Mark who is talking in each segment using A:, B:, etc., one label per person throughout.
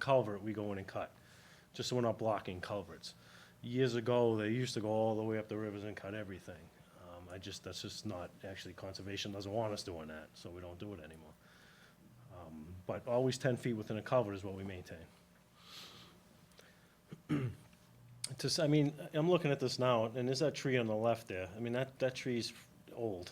A: culvert, we go in and cut, just so we're not blocking culverts. Years ago, they used to go all the way up the rivers and cut everything. Um, I just, that's just not, actually, conservation doesn't want us doing that, so we don't do it anymore. Um, But always ten feet within a culvert is what we maintain. To, s- I mean, I'm looking at this now, and there's that tree on the left there. I mean, that, that tree's old,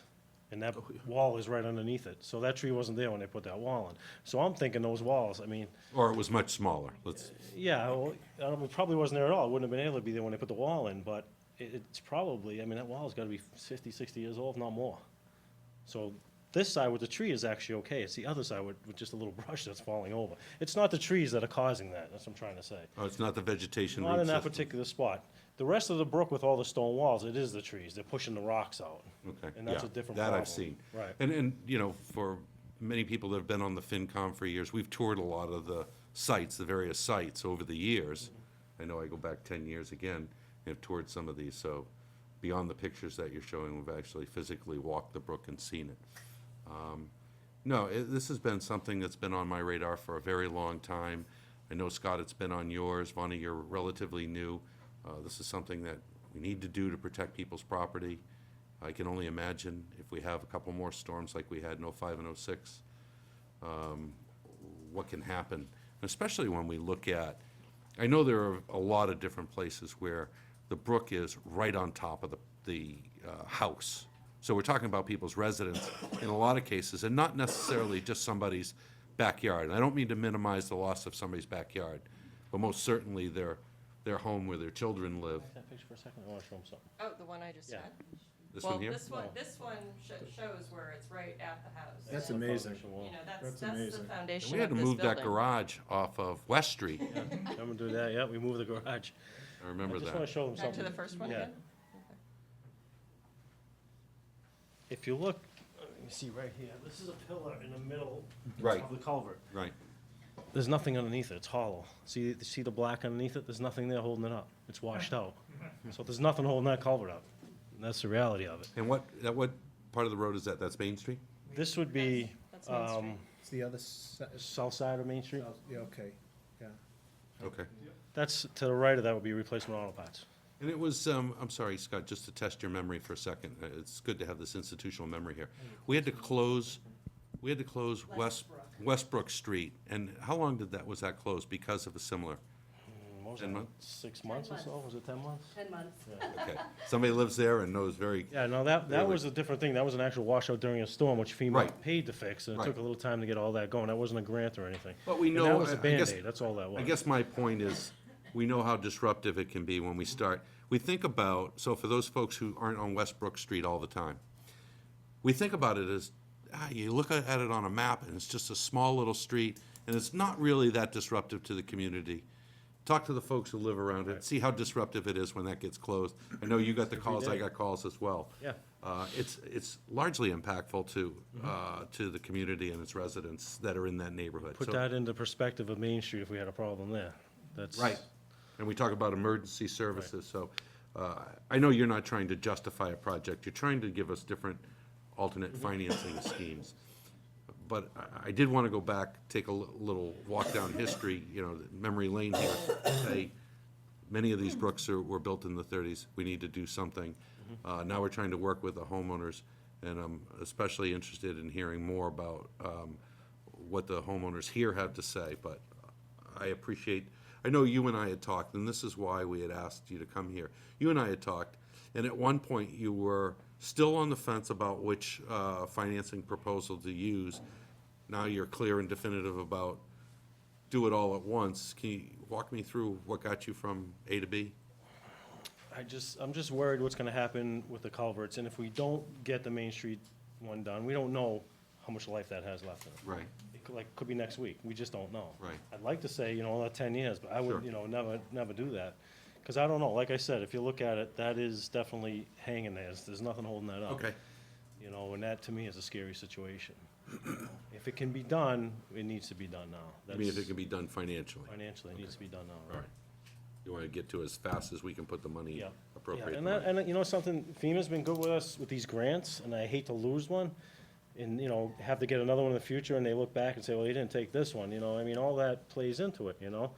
A: and that wall is right underneath it. So that tree wasn't there when they put that wall in. So I'm thinking those walls, I mean,
B: Or it was much smaller, let's,
A: yeah, well, I don't- it probably wasn't there at all. It wouldn't have been able to be there when they put the wall in, but it, it's probably, I mean, that wall's gotta be 50, 60 years old, if not more. So this side with the tree is actually okay. It's the other side with, with just a little brush that's falling over. It's not the trees that are causing that, that's what I'm trying to say.
B: oh, it's not the vegetation
A: Not
B: root
A: in that
B: system.
A: particular spot. The rest of the brook with all the stone walls, it is the trees. They're pushing the rocks out.
B: Okay,
A: And that's
B: yeah,
A: a different
B: That
A: problem.
B: I've seen.
A: Right.
B: And, and, you know, for many people that have been on the FinCom for years, we've toured a lot of the sites, the various sites over the years. I know I go back ten years again, and have toured some of these, so beyond the pictures that you're showing, we've actually physically walked the brook and seen it. No, i this has been something that's been on my radar for a very long time. I know, Scott, it's been on yours. Vonnie, you're relatively new. Uh, this is something that we need to do to protect people's property. I can only imagine if we have a couple more storms like we had in '05 and '06, what can happen, And especially when we look at, I know there are a lot of different places where the brook is right on top of the, the uh, house. So we're talking about people's residence in a lot of cases, and not necessarily just somebody's backyard. And I don't mean to minimize the loss of somebody's backyard, but most certainly their, their home where their children live.
A: That picture for a second, I wanna show 'em something.
C: Oh, the one I just
A: Yeah.
C: had?
B: This
C: Well,
B: one here?
C: this one, this one sho- shows where it's right at the house.
D: That's
C: And,
D: amazing.
C: You know, that's, that's
D: That's
C: the
D: amazing.
B: And
C: foundation
B: We had
C: of
B: to
C: this
B: move that
C: building.
B: garage off of West Street.
A: I'm gonna do that, yeah, we moved the garage.
B: I
A: I
B: remember
A: just wanna
B: that.
A: show them
C: Back to
A: something.
C: the first one
A: Yeah.
C: again?
A: If you look, uh, you see right here, this is a pillar in the middle
B: Right.
A: of the culvert.
B: Right.
A: There's nothing underneath it, it's hollow. See, see the black underneath it, there's nothing there holding it up, it's washed out. So there's nothing holding that culvert up, that's the reality of it.
B: And what, that, what part of the road is that? That's Main Street?
A: This would be,
C: That's- that's Main Street.
A: um,
D: It's the other side,
A: south side of Main Street.
D: yeah, okay, yeah.
B: Okay.
A: That's, to the right of that would be replacement auto parts.
B: And it was, um, I'm sorry, Scott, just to test your memory for a second, uh, it's good to have this institutional memory here. We had to close, we had to close West, Westbrook Street, and how long did that, was that closed because of a similar?
A: What was
B: Ten
A: that,
B: months?
A: Six months or so, was it ten months?
E: 10 months.
B: Okay, somebody lives there and knows very,
A: Yeah, no, that, that
B: Really?
A: was a different thing, that was an actual washout during a storm, which FEMA
B: Right.
A: paid to fix, and it
B: Right.
A: took a little time to get all that going, that wasn't a grant or anything.
B: But we
A: And
B: know-
A: that was a
B: I- I guess-
A: Band-Aid, that's all that was.
B: I guess my point is, we know how disruptive it can be when we start, we think about, so for those folks who aren't on Westbrook Street all the time, we think about it as, ah, you look at it on a map and it's just a small little street and it's not really that disruptive to the community. Talk to the folks who live around it, see how disruptive it is when that gets closed. I know you got the calls, I
A: day.
B: got calls as well.
A: Yeah. Mm-hmm.
B: Uh, it's, it's largely impactful to, uh, to the community and its residents that are in that neighborhood.
A: Put
B: So-
A: that into perspective of Main Street if we had a problem there, that's.
B: Right, and we talk about emergency services, so, uh, I know you're not trying to justify a project, you're trying to give us different alternate financing schemes. But I, I did wanna go back, take a li- little walk down history, you know, memory lane here, say, many of these brooks are, were built in the thirties, we need to do something. Uh, now we're trying to work with the homeowners, and I'm especially interested in hearing more about, um, what the homeowners here have to say, but I appreciate, I know you and I had talked, and this is why we had asked you to come here. You and I had talked, and at one point you were still on the fence about which, uh, financing proposal to use. Now you're clear and definitive about do it all at once. Can you walk me through what got you from A to B?
A: I just, I'm just worried what's gonna happen with the culverts, and if we don't get the Main Street one done, we don't know how much life that has left in it.
B: Right.
A: It could, like, could be next week, we just don't know.
B: Right.
A: I'd like to say, you know, another ten years, but I
B: Sure.
A: would, you know, never, never do that. Cause I don't know, like I said, if you look at it, that is definitely hanging there, there's, there's nothing holding that up.
B: Okay.
A: You know, and that to me is a scary situation. If it can be done, it needs to be done now.
B: I mean, if it
A: That's-
B: can be done financially.
A: Financially, it needs to be done now,
B: All
A: right?
B: right. You want to get to as fast as we can put the money,
A: Yeah.
B: appropriate
A: Yeah,
B: the
A: and that,
B: money.
A: and you know something, FEMA's been good with us with these grants, and I hate to lose one, and, you know, have to get another one in the future, and they look back and say, well, you didn't take this one, you know, I mean, all that plays into it, you know?